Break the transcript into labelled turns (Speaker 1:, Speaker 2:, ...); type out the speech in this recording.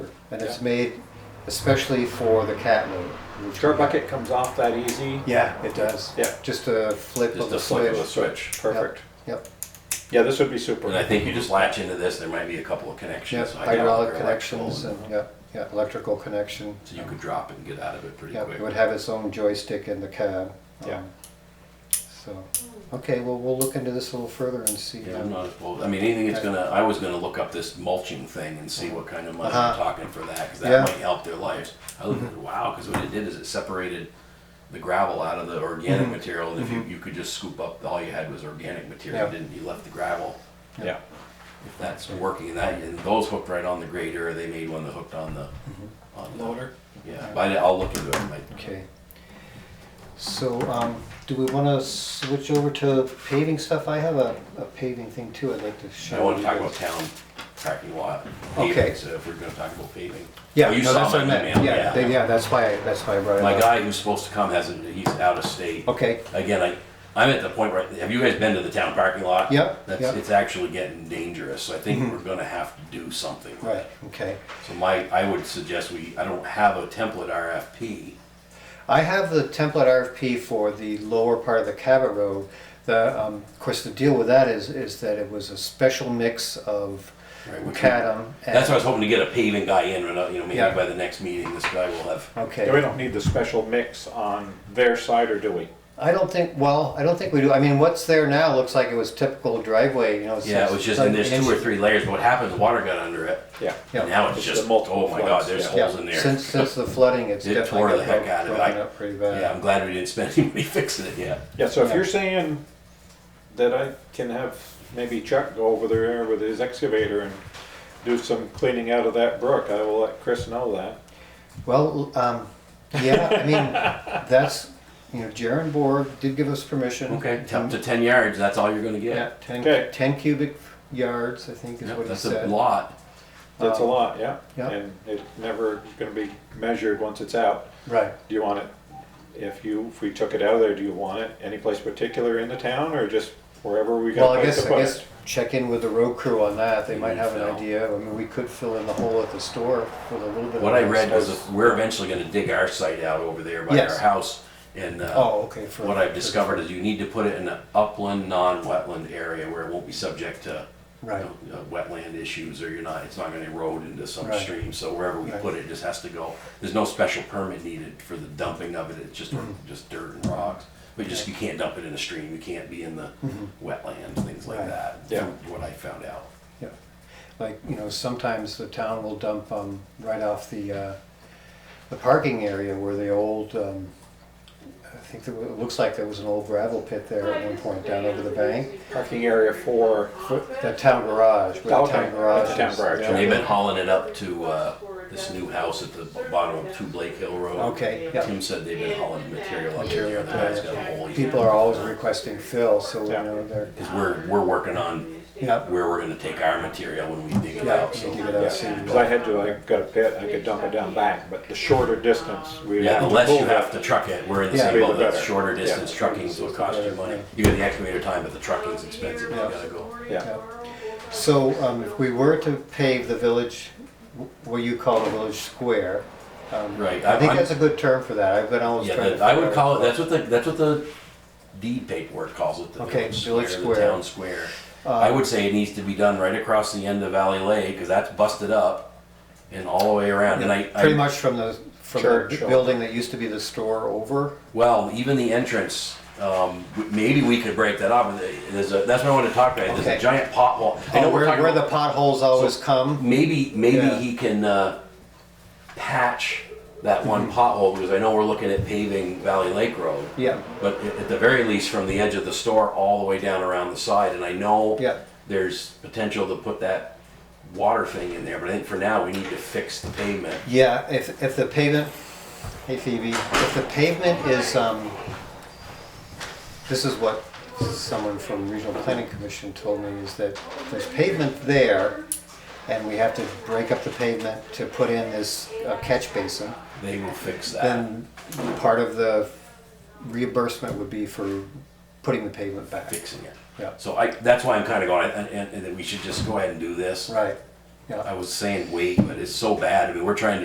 Speaker 1: and it's
Speaker 2: Yeah.
Speaker 1: made especially for the cat load. which
Speaker 2: Sure
Speaker 1: we-
Speaker 2: bucket comes off that easy.
Speaker 1: Yeah, it does.
Speaker 2: Yeah.
Speaker 1: Just a flip of
Speaker 3: Just
Speaker 1: the
Speaker 3: a flip of a
Speaker 1: switch.
Speaker 3: switch.
Speaker 2: Perfect.
Speaker 1: Yep,
Speaker 2: Yeah, this would be super.
Speaker 3: And I think you just latch into this, there might be a couple of
Speaker 1: yep,
Speaker 3: connections.
Speaker 1: hydraulic
Speaker 3: or
Speaker 1: connections
Speaker 3: electrical,
Speaker 1: and, yep, yeah, electrical connection.
Speaker 3: So you could drop and get out of it pretty
Speaker 1: Yep, it would
Speaker 3: quick.
Speaker 1: have its own joystick in the cab.
Speaker 2: Yeah.
Speaker 1: um, So, okay, well, we'll look into this a little further and see.
Speaker 3: Yeah,
Speaker 1: um,
Speaker 3: I'm not opposed, I mean, anything that's gonna, I was gonna look up this mulching thing and see what kind of money we're
Speaker 1: Uh-huh.
Speaker 3: talking for that, cause
Speaker 1: Yeah.
Speaker 3: that might help their lives. I looked at, wow, cause what it did is it separated the gravel out of the organic
Speaker 1: Mm-hmm.
Speaker 3: material, and if you, you could just scoop up, all you had was organic material,
Speaker 1: Yeah.
Speaker 3: didn't, you left the gravel.
Speaker 2: Yeah.
Speaker 3: If that's working, that, and those hooked right on the grader, or they made one that hooked on the,
Speaker 1: Mm-hmm.
Speaker 3: on the. Loader? Yeah, but I'll look into it, like,
Speaker 1: Okay. So, um, do we want to switch over to paving stuff? I have a, a paving thing too I'd like to share.
Speaker 3: I want to
Speaker 1: with
Speaker 3: talk
Speaker 1: you
Speaker 3: about
Speaker 1: guys.
Speaker 3: town parking lot paving,
Speaker 1: Okay.
Speaker 3: so if we're gonna talk about paving.
Speaker 1: Yeah,
Speaker 3: Oh, you
Speaker 1: no,
Speaker 3: saw
Speaker 1: that's
Speaker 3: my
Speaker 1: what I meant.
Speaker 3: email,
Speaker 1: Yeah,
Speaker 3: yeah.
Speaker 1: they- yeah, that's why, that's why I brought it
Speaker 3: My
Speaker 1: up.
Speaker 3: guy who's supposed to come hasn't, he's out of state.
Speaker 1: Okay,
Speaker 3: Again, I, I'm at the point where, have you guys been to the town parking lot?
Speaker 1: Yep,
Speaker 3: That's,
Speaker 1: yep. Mm-hmm.
Speaker 3: it's actually getting dangerous, so I think we're gonna have to do something.
Speaker 1: right, okay.
Speaker 3: So my, I would suggest we, I don't have a template RFP.
Speaker 1: I have the template RFP for the lower part of the Cabot Road. The, um, of course, the deal with that is, is that it was a special mix of
Speaker 3: Right, we can-
Speaker 1: Cadum. and-
Speaker 3: That's why I was hoping to get a paving guy in, you know, you know,
Speaker 1: Yeah.
Speaker 3: maybe by the next meeting, this guy will have,
Speaker 1: Okay.
Speaker 2: Yeah, we don't need the special mix on their side, or do we?
Speaker 1: I don't think, well, I don't think we do. I mean, what's there now looks like it was typical driveway, you know. it's-
Speaker 3: yeah, it was just, and there's two or tee layers, what happened, the water got under it.
Speaker 2: Yeah.
Speaker 1: Yeah.
Speaker 3: And now it's
Speaker 2: It's the
Speaker 3: just,
Speaker 2: multiple
Speaker 3: oh my
Speaker 2: floods,
Speaker 3: god, there's
Speaker 2: yeah.
Speaker 3: holes
Speaker 1: Yeah,
Speaker 3: in there.
Speaker 1: Since, since uh, the flooding, it's
Speaker 3: It
Speaker 1: definitely.
Speaker 3: tore the
Speaker 1: got
Speaker 3: heck
Speaker 1: broke-
Speaker 3: out of it.
Speaker 1: broken
Speaker 3: I-
Speaker 1: up pretty
Speaker 3: Yeah,
Speaker 1: bad.
Speaker 3: I'm glad we didn't spend any money fixing it yet.
Speaker 2: Yeah, so if
Speaker 1: Yeah.
Speaker 2: you're saying that I can have maybe Chuck go over there with his excavator and do some cleaning out of that brook, I will let Chris know that.
Speaker 1: Well, um, yeah, I mean, that's, you know, Jaren Borg did give us permission.
Speaker 3: Okay,
Speaker 1: to-
Speaker 3: up to ten yards, that's all you're gonna
Speaker 1: Yeah,
Speaker 3: get.
Speaker 1: ten,
Speaker 2: Okay.
Speaker 1: ten cubic yards, I think is
Speaker 3: Yeah,
Speaker 1: what he
Speaker 3: That's a
Speaker 1: said.
Speaker 3: lot.
Speaker 2: That's a
Speaker 1: Um,
Speaker 2: lot, yeah.
Speaker 1: yeah.
Speaker 2: And it's never gonna be measured once it's out.
Speaker 1: Right.
Speaker 2: Do you want it, if you, if we took it out of there, do you want it any place particular in the town or just wherever we
Speaker 1: Well,
Speaker 2: got
Speaker 1: I
Speaker 2: place
Speaker 1: guess,
Speaker 2: to
Speaker 1: I
Speaker 2: put
Speaker 1: guess
Speaker 2: it?
Speaker 1: check in with the road crew on that. They
Speaker 3: You
Speaker 1: might
Speaker 3: mean
Speaker 1: have an
Speaker 3: fill.
Speaker 1: idea. I mean, we could fill in the hole at the store with a little bit of.
Speaker 3: What I read
Speaker 1: extra-
Speaker 3: was, if we're eventually gonna dig our site out over there by
Speaker 1: Yes.
Speaker 3: our house. And, uh,
Speaker 1: Oh, okay. for-
Speaker 3: what I've discovered is you need to put it in an upland, non-wetland area where it won't be subject to, you
Speaker 1: Right.
Speaker 3: know, uh, wetland issues, or you're not, it's not gonna erode into some
Speaker 1: Right.
Speaker 3: stream. So wherever we
Speaker 1: Right.
Speaker 3: put it, it just has to go. There's no special permit needed for the dumping of it, it's just,
Speaker 1: Mm-hmm.
Speaker 3: just dirt and rocks. But just, you can't dump it in a stream, you can't be in the wetland, things like
Speaker 1: Mm-hmm. Right.
Speaker 3: that.
Speaker 2: Yeah.
Speaker 3: from What I found out.
Speaker 1: Yeah, like, you know, sometimes the town will dump um, right off the, uh, the parking area where the old, um, I think there wa- it looks like there was an old gravel pit there at one point down over the bank.
Speaker 2: Parking area for,
Speaker 1: The town garage, where the
Speaker 2: Okay,
Speaker 1: town garage
Speaker 2: the town
Speaker 1: is.
Speaker 2: garage,
Speaker 3: And
Speaker 1: Yeah.
Speaker 3: they've been hauling it up to uh, this new house at the bottom of Two Blake Hill Road.
Speaker 1: Okay, yeah.
Speaker 3: Tim said they've been hauling material up
Speaker 1: Material
Speaker 3: there.
Speaker 1: up
Speaker 3: That's
Speaker 1: there.
Speaker 3: got a hole.
Speaker 1: People are always requesting fill, so, you
Speaker 2: Yeah.
Speaker 1: know, they're,
Speaker 3: Because we're, we're working on
Speaker 1: yeah,
Speaker 3: where we're gonna take our material when we dig it
Speaker 1: yeah,
Speaker 3: out,
Speaker 1: you
Speaker 3: so.
Speaker 1: give it
Speaker 2: yeah,
Speaker 1: out, see.
Speaker 2: cause I had to, I got a pit, I could dump it down back, but the shorter distance, we
Speaker 3: Yeah,
Speaker 2: have to
Speaker 3: the less
Speaker 2: pull
Speaker 3: you
Speaker 2: that.
Speaker 3: have to truck it, we're in the
Speaker 1: Yeah.
Speaker 3: same boat,
Speaker 2: Be the
Speaker 3: that's
Speaker 2: better.
Speaker 3: shorter
Speaker 2: Yeah.
Speaker 3: distance trucking's what costs you money. You got the excavator time, but the trucking's expensive, you
Speaker 1: Yeah.
Speaker 3: gotta go.
Speaker 2: Yeah.
Speaker 1: So um, if we were to pave the village, wh- what you call the village square, um,
Speaker 3: Right,
Speaker 1: I
Speaker 3: I-
Speaker 1: think
Speaker 3: I'm-
Speaker 1: that's a good term for that. I've been always
Speaker 3: Yeah,
Speaker 1: trying
Speaker 3: that-
Speaker 1: to.
Speaker 3: I
Speaker 1: figure
Speaker 3: would
Speaker 1: out-
Speaker 3: call it, that's what the, that's what the deed paperwork calls it, the
Speaker 1: Okay,
Speaker 3: village
Speaker 1: village
Speaker 3: square, the
Speaker 1: square. Uh,
Speaker 3: town square. I would say it needs to be done right across the end of Valley Lake, cause that's busted up and all the way around, and I. I-
Speaker 1: Pretty much from the, from
Speaker 2: Church
Speaker 1: the
Speaker 2: or-
Speaker 1: building that used to be the store over.
Speaker 3: Well, even the entrance, um, w- maybe we could break that up, there's a, that's what I wanted to talk about, there's
Speaker 1: Okay.
Speaker 3: a giant pothole. I know
Speaker 1: Oh,
Speaker 3: we're
Speaker 1: where,
Speaker 3: talking
Speaker 1: where
Speaker 3: about-
Speaker 1: the potholes always come.
Speaker 3: Maybe, maybe
Speaker 1: Yeah.
Speaker 3: he can uh, patch
Speaker 1: Mm-hmm.
Speaker 3: that one pothole because I know we're looking at paving Valley Lake Road.
Speaker 1: Yeah,
Speaker 3: But a- at the very least, from the edge of the store all the way down around the side, and I know
Speaker 1: Yeah.
Speaker 3: there's potential to put that water thing in there. But I think for now, we need to fix the pavement.
Speaker 1: yeah, if, if the pavement, hey Phoebe, if the pavement is, um, this is what someone from Regional Planning Commission told me is that there's pavement there and we have to break up the pavement to put in this uh, catch basin.
Speaker 3: They will fix that.
Speaker 1: Then part of the reimbursement would be for putting the pavement back.
Speaker 3: fixing it.
Speaker 1: Yeah.
Speaker 3: So I, that's why I'm kind of going, and, and, and that we should just go ahead and do this.
Speaker 1: Right. Yeah.
Speaker 3: I was saying wait, but it's so bad. I mean, we're trying to